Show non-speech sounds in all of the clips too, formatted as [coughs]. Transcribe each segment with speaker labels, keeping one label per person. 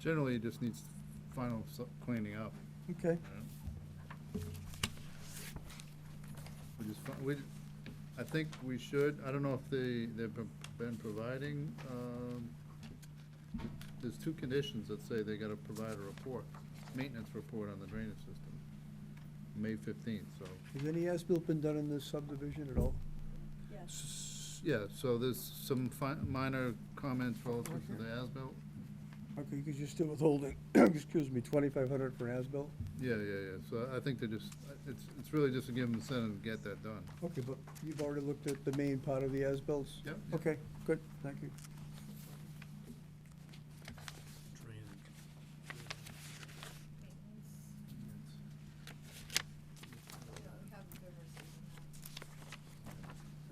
Speaker 1: Generally, it just needs final s- cleaning up.
Speaker 2: Okay.
Speaker 1: We just, fi- we, I think we should, I don't know if they, they've been- been providing, um, there's two conditions that say they gotta provide a report, maintenance report on the drainage system, May fifteenth, so.
Speaker 2: Has any as-built been done in this subdivision at all?
Speaker 3: Yes.
Speaker 1: S- Yeah, so there's some fi- minor comments relative to the as-built.
Speaker 2: Okay, because you're still withholding, [coughs] excuse me, twenty-five hundred for as-built?
Speaker 1: Yeah, yeah, yeah, so I think they just, it's, it's really just to give them incentive to get that done.
Speaker 2: Okay, but you've already looked at the main part of the as-bills?
Speaker 1: Yep.
Speaker 2: Okay, good, thank you.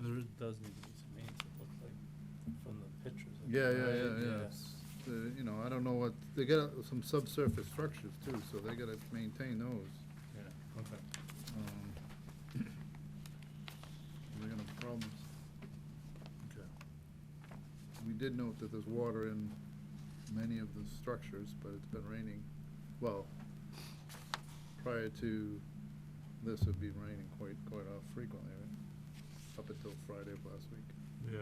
Speaker 4: There does need to be some names, it looks like, from the pictures. I
Speaker 1: Yeah,
Speaker 4: think,
Speaker 1: yeah,
Speaker 4: right?
Speaker 1: yeah, yeah. The- You know, I don't know what, they got some subsurface structures too, so they gotta maintain those.
Speaker 4: Yeah, okay.
Speaker 1: Um, [coughs] They're gonna have problems. Okay. We did note that there's water in many of the structures, but it's been raining, well, prior to this, it'd been raining quite, quite uh, frequently, right? Up until Friday of last week.
Speaker 4: Yeah.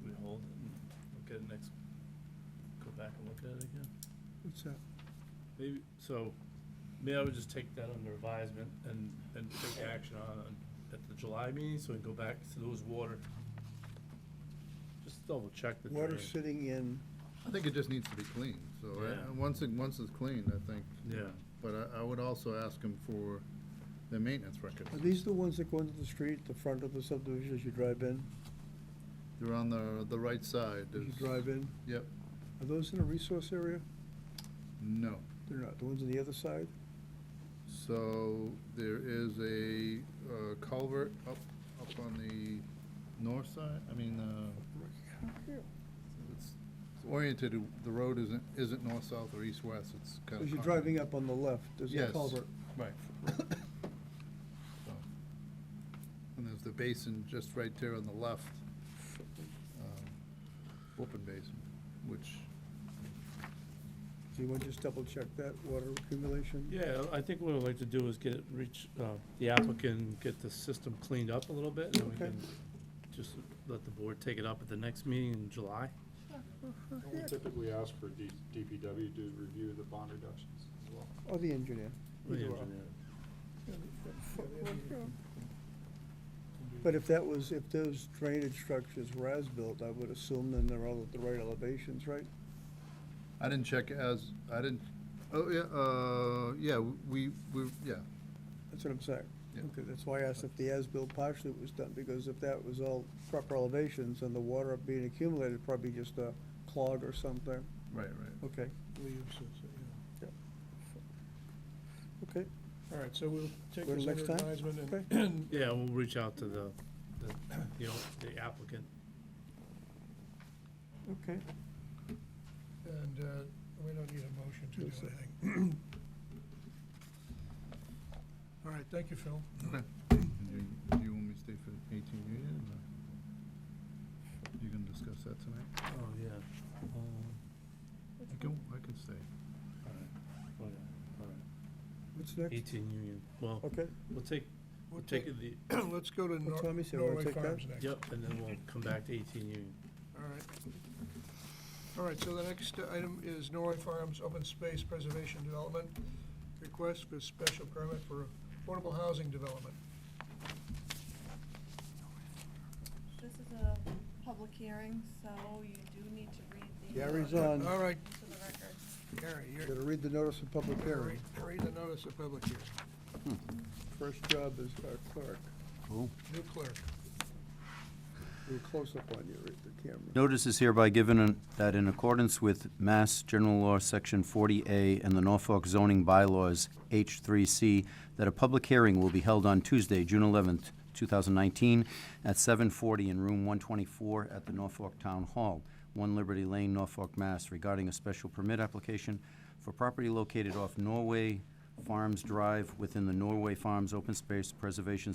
Speaker 4: Should we hold it and look at it next, go back and look at it again?
Speaker 2: What's that?
Speaker 4: Maybe, so, maybe I would just take that under advisement and, and take action on, it at the July meeting, so we can go back to those water. Just double check the
Speaker 2: Water
Speaker 4: drain.
Speaker 2: sitting in,
Speaker 1: I think it just needs to be cleaned, so, I-
Speaker 4: Yeah.
Speaker 1: once it, once it's cleaned, I think.
Speaker 4: Yeah,
Speaker 1: But I, I would also ask them for the maintenance records.
Speaker 2: are these the ones that go into the street, the front of the subdivision as you drive in?
Speaker 1: They're on the, the right side.
Speaker 2: As you
Speaker 1: is-
Speaker 2: drive in?
Speaker 1: Yep,
Speaker 2: Are those in a resource area?
Speaker 1: no.
Speaker 2: They're not, the ones on the other side?
Speaker 1: So there is a uh, culvert up, up on the north side, I mean, uh, it's it's oriented, the road isn't, isn't north-south or east-west, it's kind of.
Speaker 2: As you're driving up on the left, there's a
Speaker 1: Yes.
Speaker 2: culvert.
Speaker 1: Right. So, And there's the basin just right there on the left, um, open basin, which,
Speaker 2: Do you want to just double-check that water accumulation?
Speaker 4: yeah, I think what I'd like to do is get, reach, uh, the applicant, get the system cleaned up a little bit, and then we
Speaker 2: Okay.
Speaker 4: can just let the board take it up at the next meeting in July.
Speaker 5: We typically ask for D- DPW to review the bond reductions as well.
Speaker 2: Or the engineer?
Speaker 4: The
Speaker 2: Either or.
Speaker 4: engineer.
Speaker 2: But if that was, if those drainage structures were as-built, I would assume then they're all at the right elevations, right?
Speaker 1: I didn't check as, I didn't, oh, yeah, uh, yeah, we, we, yeah,
Speaker 2: That's what I'm saying.
Speaker 1: Yeah.
Speaker 2: Okay, that's why I asked if the as-built partially was done, because if that was all proper elevations and the water being accumulated, probably just a clog or something.
Speaker 1: right, right.
Speaker 2: Okay. Yep. Okay,
Speaker 6: All right, so we'll take
Speaker 2: Go to
Speaker 6: this under
Speaker 2: next time?
Speaker 6: advisement and-
Speaker 2: okay.
Speaker 4: Yeah, we'll reach out to the, the, you know, the applicant.
Speaker 2: Okay.
Speaker 6: and uh, we don't need a motion to do
Speaker 2: Yes, sir.
Speaker 6: anything. All right, thank you, Phil.
Speaker 1: Okay. Do you want me to stay for eighteen Union, or you gonna discuss that tonight?
Speaker 4: Oh, yeah. Um,
Speaker 1: I can, I can stay.
Speaker 4: all right, all right.
Speaker 2: What's next?
Speaker 4: oh, Eighteen Union, well,
Speaker 2: Okay,
Speaker 4: we'll take, we'll
Speaker 6: We'll
Speaker 4: take
Speaker 6: take-
Speaker 4: the,
Speaker 6: [clears throat] Let's go to
Speaker 2: Well,
Speaker 6: Nor-
Speaker 2: Tommy said we'll
Speaker 6: Norway
Speaker 2: take that.
Speaker 6: Farms next.
Speaker 4: yep, and then we'll come back to eighteen Union.
Speaker 6: All right. All right, so the next item is Norway Farms Open Space Preservation Development, request for special permit for affordable housing development.
Speaker 3: This is a public hearing, so you do need to read the.
Speaker 2: Gary's
Speaker 3: uh,
Speaker 2: on.
Speaker 6: All right,
Speaker 3: To the record.
Speaker 6: Gary, you're,
Speaker 2: gotta read the notice of public hearing.
Speaker 6: read read the notice of public hearing,
Speaker 2: First job is uh, our clerk.
Speaker 6: new clerk.
Speaker 2: We're close up on you, read the camera.
Speaker 7: Notice is hereby given in- that in accordance with Mass General Law, Section 40A, and the Norfolk zoning bylaws, H3C, that a public hearing will be held on Tuesday, June 11th, 2019, at 7:40 in Room 124 at the Norfolk Town Hall, 1 Liberty Lane, Norfolk, Mass, regarding a special permit application for property located off Norway Farms Drive within the Norway Farms Open Space Preservation